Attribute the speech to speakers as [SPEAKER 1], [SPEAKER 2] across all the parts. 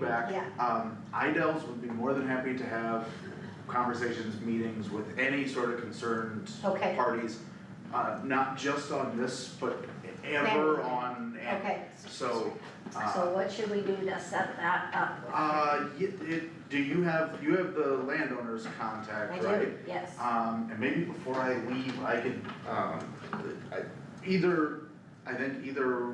[SPEAKER 1] back.
[SPEAKER 2] Yeah.
[SPEAKER 1] Um, IDELs would be more than happy to have conversations, meetings with any sort of concerned
[SPEAKER 2] Okay.
[SPEAKER 1] parties. Uh, not just on this, but ever on, and,
[SPEAKER 2] Okay,
[SPEAKER 1] so,
[SPEAKER 2] so
[SPEAKER 1] uh,
[SPEAKER 2] what should we do to set that up?
[SPEAKER 1] uh, y- it, do you have, you have the landowner's
[SPEAKER 2] I
[SPEAKER 1] contact, right?
[SPEAKER 2] do, yes,
[SPEAKER 1] Um, and maybe before I leave, I could, um, I, either, I think either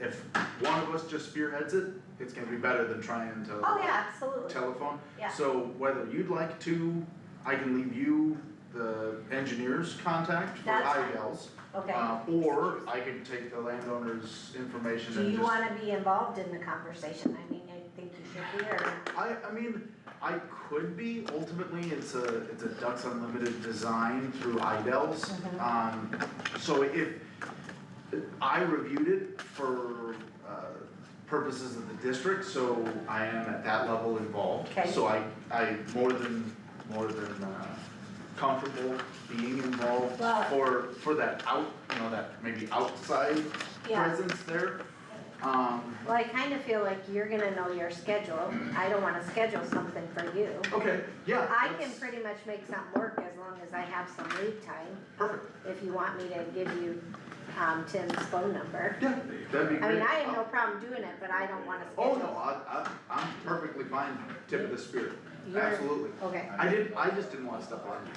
[SPEAKER 1] if one of us just spearheads it, it's gonna be better than trying to
[SPEAKER 2] oh, yeah, absolutely,
[SPEAKER 1] telephone.
[SPEAKER 2] Yeah.
[SPEAKER 1] So whether you'd like to, I can leave you the engineer's contact for
[SPEAKER 2] That's fine.
[SPEAKER 1] IDLs.
[SPEAKER 2] okay.
[SPEAKER 1] Uh, or I can take the landowner's information
[SPEAKER 2] Do
[SPEAKER 1] and
[SPEAKER 2] you
[SPEAKER 1] just,
[SPEAKER 2] wanna be involved in the conversation? I mean, I think you should be, or,
[SPEAKER 1] I, I mean, I could be, ultimately, it's a, it's a Ducks Unlimited design through IDLs.
[SPEAKER 2] Mhm.
[SPEAKER 1] Um, so if, I reviewed it for, uh, purposes of the district, so I am at that level involved.
[SPEAKER 2] Okay.
[SPEAKER 1] So I, I more than, more than, uh, comfortable being involved
[SPEAKER 2] Well-
[SPEAKER 1] for, for that out, you know, that maybe outside
[SPEAKER 2] yeah.
[SPEAKER 1] presence there. Um,
[SPEAKER 2] Well, I kinda feel like you're gonna know your schedule, I don't wanna schedule something for you.
[SPEAKER 1] okay, yeah,
[SPEAKER 2] I can
[SPEAKER 1] that's
[SPEAKER 2] pretty much make something work as long as I have some lead time,
[SPEAKER 1] perfect,
[SPEAKER 2] if you want me to give you, um, Tim's phone number.
[SPEAKER 1] yeah, that'd be great.
[SPEAKER 2] I mean, I have
[SPEAKER 1] Uh,
[SPEAKER 2] no problem doing it, but I don't wanna
[SPEAKER 1] Oh,
[SPEAKER 2] schedule.
[SPEAKER 1] no, I, I, I'm perfectly fine, tip of the spear,
[SPEAKER 2] You're-
[SPEAKER 1] absolutely.
[SPEAKER 2] Okay.
[SPEAKER 1] I didn't, I just didn't wanna step on you.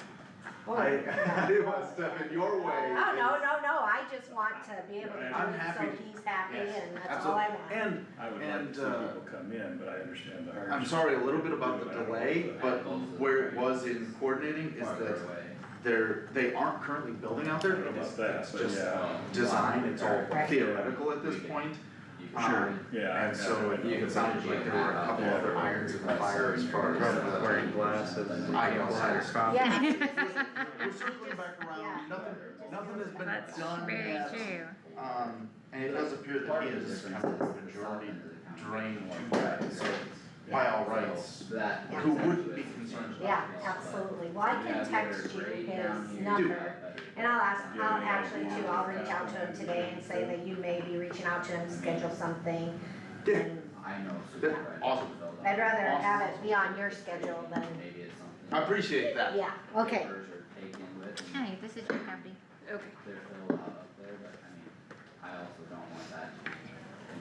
[SPEAKER 1] I, I didn't wanna step in your way.
[SPEAKER 2] Oh, no, no, no, I just want to be able to do it
[SPEAKER 1] I'm happy
[SPEAKER 2] so
[SPEAKER 1] to-
[SPEAKER 2] he's happy
[SPEAKER 1] Yes,
[SPEAKER 2] and that's all
[SPEAKER 1] Absolutely,
[SPEAKER 2] I want.
[SPEAKER 1] and
[SPEAKER 3] I would like
[SPEAKER 1] And,
[SPEAKER 3] to see
[SPEAKER 1] uh,
[SPEAKER 3] people come in, but I understand the hardship.
[SPEAKER 1] I'm sorry a little bit about the delay, but where it was in coordinating is
[SPEAKER 4] farther
[SPEAKER 1] that
[SPEAKER 4] away.
[SPEAKER 1] they're, they aren't currently building out
[SPEAKER 3] I
[SPEAKER 1] there.
[SPEAKER 3] don't know
[SPEAKER 1] It's
[SPEAKER 3] about that,
[SPEAKER 1] it's
[SPEAKER 3] but
[SPEAKER 1] just
[SPEAKER 3] yeah.
[SPEAKER 4] Um,
[SPEAKER 1] design, it's all
[SPEAKER 2] Right.
[SPEAKER 1] theoretical at this point,
[SPEAKER 4] You can-
[SPEAKER 1] Sure.
[SPEAKER 3] Yeah. I-
[SPEAKER 1] and so
[SPEAKER 3] I
[SPEAKER 1] it
[SPEAKER 3] know.
[SPEAKER 1] it sounded like there were a couple
[SPEAKER 4] Yeah.
[SPEAKER 1] other irons in the fire as far as the.
[SPEAKER 5] Wearing glasses.
[SPEAKER 1] I know, sorry.
[SPEAKER 2] Yeah.
[SPEAKER 1] We're circling back around, nothing, nothing has been
[SPEAKER 6] That's
[SPEAKER 1] done
[SPEAKER 6] very
[SPEAKER 1] yet.
[SPEAKER 6] true.
[SPEAKER 1] Um, and it does appear that
[SPEAKER 4] Part
[SPEAKER 1] he
[SPEAKER 4] of the
[SPEAKER 1] is
[SPEAKER 4] difference
[SPEAKER 1] kind of
[SPEAKER 4] is the southern
[SPEAKER 1] majority
[SPEAKER 4] end of the county.
[SPEAKER 1] drained
[SPEAKER 4] One
[SPEAKER 1] to that,
[SPEAKER 4] part is
[SPEAKER 1] so
[SPEAKER 4] the-
[SPEAKER 1] by all
[SPEAKER 4] so
[SPEAKER 1] rights,
[SPEAKER 4] That.
[SPEAKER 1] who
[SPEAKER 4] is
[SPEAKER 1] wouldn't be
[SPEAKER 4] actually-
[SPEAKER 1] concerned about
[SPEAKER 2] Yeah, absolutely, well, I can text you his number, and I'll ask, I'll actually too, I'll reach out to him today and say that you may be reaching out to him, schedule something.
[SPEAKER 1] Yeah.
[SPEAKER 2] And
[SPEAKER 4] I know.
[SPEAKER 1] Yeah,
[SPEAKER 4] supervisors
[SPEAKER 1] awesome.
[SPEAKER 4] will
[SPEAKER 2] I'd rather
[SPEAKER 1] Awesome.
[SPEAKER 2] have it be on your schedule than,
[SPEAKER 4] Maybe it's something.
[SPEAKER 1] I appreciate that.
[SPEAKER 2] yeah, okay, Hmm.
[SPEAKER 4] Papers are taken with and
[SPEAKER 6] Hey, this is your property. Okay.
[SPEAKER 4] they're filled out up there, but I mean, I also don't want that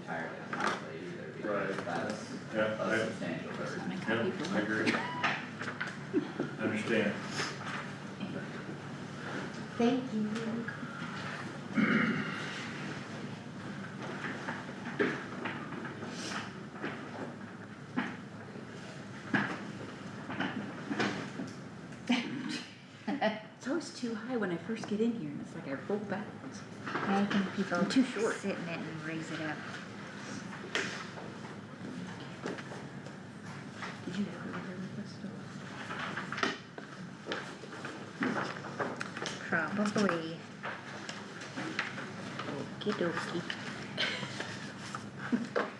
[SPEAKER 4] entirely on my plate either because
[SPEAKER 3] Right.
[SPEAKER 4] that's
[SPEAKER 3] Yeah,
[SPEAKER 4] a substantial burden.
[SPEAKER 3] I, yeah, I agree. Understand.
[SPEAKER 2] thank you.
[SPEAKER 6] It's always too high when I first get in here, and it's like I roll backwards. I think people too short. sit in it and raise it up. Did you ever hear of this stuff? Probably. Okie dokie.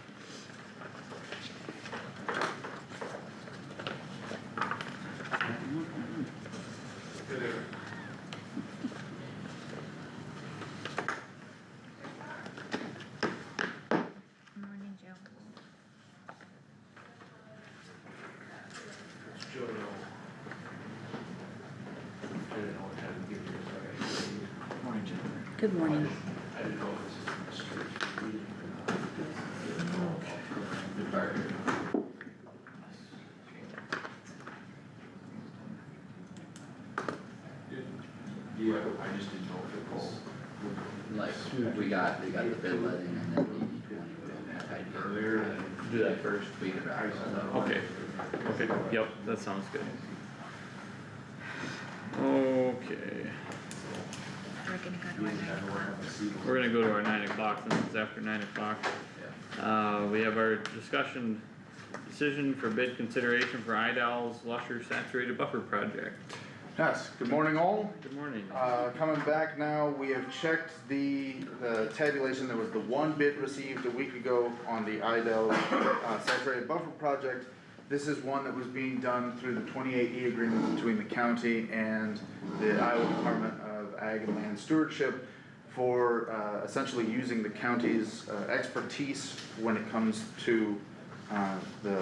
[SPEAKER 6] Morning, Joe. Good morning.
[SPEAKER 5] Yeah, I just didn't know if it was.
[SPEAKER 4] Like, we got, we got the bid letting and then DD twenty, we don't have idea.
[SPEAKER 5] Earlier than-
[SPEAKER 4] Do that first. We could wrap it up.
[SPEAKER 7] Okay, okay, yep, that sounds good. Okay,
[SPEAKER 6] We're gonna go to our night club.
[SPEAKER 7] we're gonna go to our nine o'clock, since it's after nine o'clock. Uh, we have our discussion, decision for bid consideration for Idell's Lusher Saturated Buffer Project.
[SPEAKER 1] Yes, good morning all,
[SPEAKER 7] Good morning.
[SPEAKER 1] Uh, coming back now, we have checked the, the tabulation, there was the one bid received a week ago on the Idel uh, saturated buffer project. This is one that was being done through the twenty-eight E agreement between the county and the Iowa Department of Ag and Land Stewardship for, uh, essentially using the county's uh, expertise when it comes to, uh, the